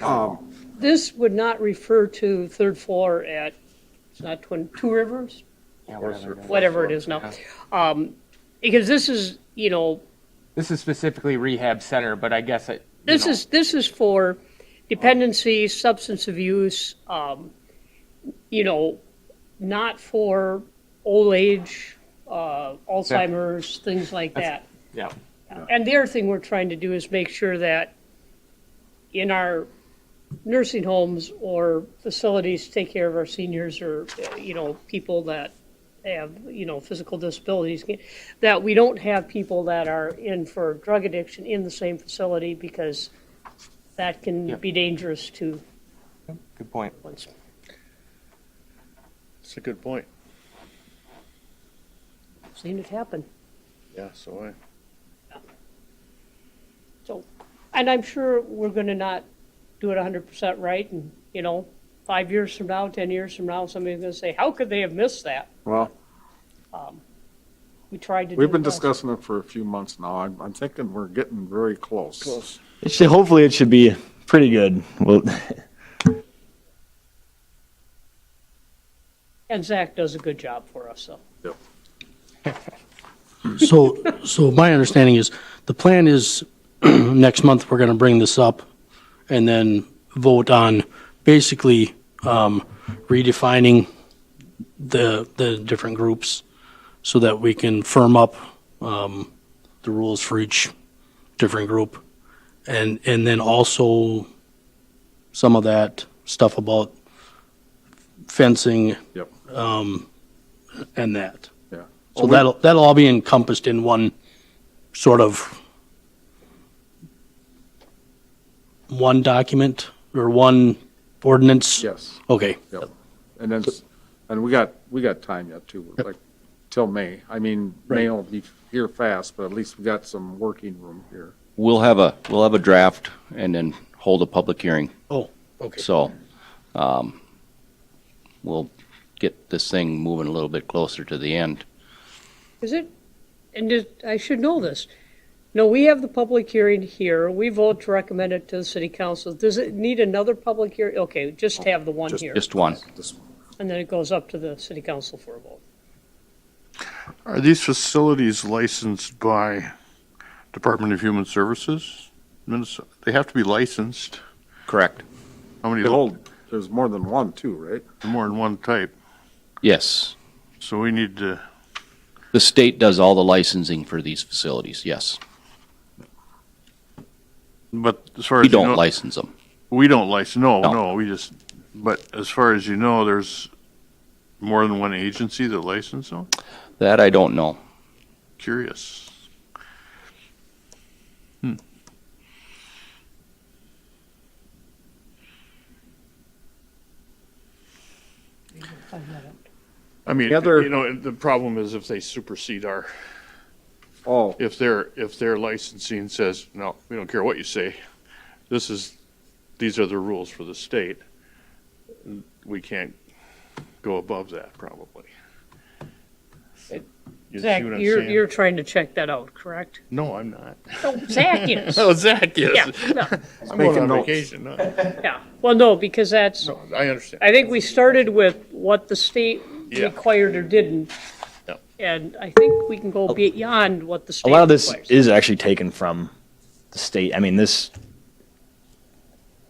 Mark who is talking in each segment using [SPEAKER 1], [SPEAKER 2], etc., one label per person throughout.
[SPEAKER 1] Um,
[SPEAKER 2] This would not refer to third floor at, it's not Twin, Two Rivers?
[SPEAKER 1] yeah, whatever.
[SPEAKER 2] Whatever it is now. Um, Because this is, you know,
[SPEAKER 1] This is specifically rehab center, but I guess it. you
[SPEAKER 2] This
[SPEAKER 1] know,
[SPEAKER 2] is, this is for dependency, substance abuse, um, you know, not for old age, uh, Alzheimer's, things like that.
[SPEAKER 1] Yeah,
[SPEAKER 2] And the other thing we're trying to do is make sure that in our nursing homes or facilities, take care of our seniors or, uh, you know, people that have, you know, physical disabilities, that we don't have people that are in for drug addiction in the same facility because that can
[SPEAKER 1] Yep.
[SPEAKER 2] be dangerous to
[SPEAKER 1] good point.
[SPEAKER 2] one's.
[SPEAKER 3] That's a good point.
[SPEAKER 2] Seen it happen.
[SPEAKER 3] Yeah, so
[SPEAKER 2] So, and I'm sure we're gonna not do it hundred percent right, and, you know, five years from now, ten years from now, somebody's gonna say, how could they have missed that?
[SPEAKER 4] Well,
[SPEAKER 2] We tried to do.
[SPEAKER 4] we've been
[SPEAKER 2] the best."
[SPEAKER 4] discussing it for a few months now. I'm, I'm thinking we're getting very close.
[SPEAKER 3] Close.
[SPEAKER 5] It should, hopefully, it should be pretty good. Well,
[SPEAKER 2] And Zach does a good job for us, so.
[SPEAKER 4] Yep.
[SPEAKER 6] So, so my understanding is, the plan is, next month, we're gonna bring this up and then vote on basically um, redefining the, the different groups so that we can firm up um, the rules for each different group. And, and then also some of that stuff about fencing um,
[SPEAKER 4] Yep,
[SPEAKER 6] and that.
[SPEAKER 4] yeah.
[SPEAKER 6] So that'll, that'll all be encompassed in one sort of one document or one ordinance?
[SPEAKER 4] Yes,
[SPEAKER 6] Okay.
[SPEAKER 4] yep. And then, s- and we got, we got time yet too, like till May. I mean, May will be here fast, but at least we got some working room here.
[SPEAKER 7] We'll have a, we'll have a draft and then hold a public hearing.
[SPEAKER 6] Oh, okay.
[SPEAKER 7] So, um, we'll get this thing moving a little bit closer to the end.
[SPEAKER 2] Is it, and it- I should know this. No, we have the public hearing here. We vote to recommend it to the city council. Does it need another public hearing? Okay, just have the one
[SPEAKER 4] Just-
[SPEAKER 2] here.
[SPEAKER 7] Just one.
[SPEAKER 4] This-
[SPEAKER 2] And then it goes up to the city council for a vote.
[SPEAKER 3] Are these facilities licensed by Department of Human Services? Minnesota, they have to be licensed.
[SPEAKER 7] Correct.
[SPEAKER 3] How many?
[SPEAKER 4] They hold, there's more than one too, right?
[SPEAKER 3] More than one type.
[SPEAKER 7] Yes.
[SPEAKER 3] So we need to,
[SPEAKER 7] The state does all the licensing for these facilities, yes.
[SPEAKER 3] but as far as.
[SPEAKER 7] We
[SPEAKER 3] you
[SPEAKER 7] don't
[SPEAKER 3] know-
[SPEAKER 7] license them.
[SPEAKER 3] We don't license, no,
[SPEAKER 7] No.
[SPEAKER 3] no, we just, but as far as you know, there's more than one agency that licenses them?
[SPEAKER 7] That I don't know.
[SPEAKER 3] Curious. Hmm.
[SPEAKER 2] Find that out.
[SPEAKER 3] I mean,
[SPEAKER 4] The other-
[SPEAKER 3] you know, the problem is if they supersede our,
[SPEAKER 4] Oh,
[SPEAKER 3] if their, if their licensing says, no, we don't care what you say, this is, these are the rules for the state, we can't go above that probably. You see
[SPEAKER 2] Zach,
[SPEAKER 3] what I'm
[SPEAKER 2] you're,
[SPEAKER 3] saying?
[SPEAKER 2] you're trying to check that out, correct?
[SPEAKER 3] No, I'm not.
[SPEAKER 2] Oh, Zach is.
[SPEAKER 3] Oh, Zach,
[SPEAKER 2] Yeah,
[SPEAKER 3] yes.
[SPEAKER 2] no,
[SPEAKER 3] I'm going
[SPEAKER 4] Making
[SPEAKER 3] on
[SPEAKER 4] notes.
[SPEAKER 3] vacation. No,
[SPEAKER 2] yeah. Well, no, because that's,
[SPEAKER 3] no, I understand.
[SPEAKER 2] I think we started with what the state
[SPEAKER 3] Yeah.
[SPEAKER 2] required or didn't.
[SPEAKER 3] Yep.
[SPEAKER 2] And I think we can go beyond what the
[SPEAKER 5] Oh. a
[SPEAKER 2] state
[SPEAKER 5] lot of this
[SPEAKER 2] requires.
[SPEAKER 5] is actually taken from the state. I mean, this,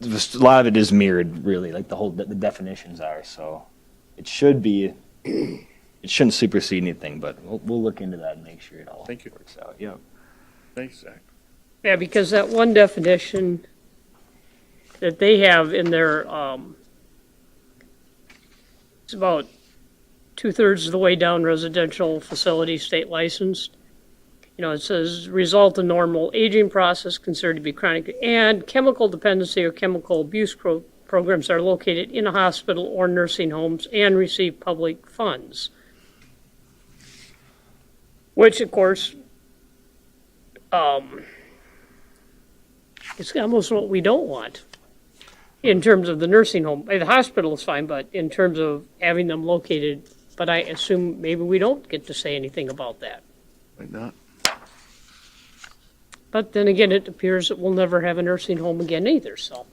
[SPEAKER 5] this a lot of it is mirrored, really. Like the whole the definitions are. So it should be. It shouldn't supersede anything, but we'll, we'll look into that and make sure it all
[SPEAKER 3] Thank you.
[SPEAKER 5] works out. Yeah.
[SPEAKER 3] Thanks, Zach.
[SPEAKER 2] Yeah, because that one definition that they have in their, um, it's about two-thirds of the way down residential facility state licensed. You know, it says result in normal aging process considered to be chronic and chemical dependency or chemical abuse pro- programs are located in a hospital or nursing homes and receive public funds. Which, of course, um, it's almost what we don't want in terms of the nursing home. Uh, The hospital is fine, but in terms of having them located, but I assume maybe we don't get to say anything about that.
[SPEAKER 3] Might not.
[SPEAKER 2] But then again, it appears that we'll never have a nursing home again either, so.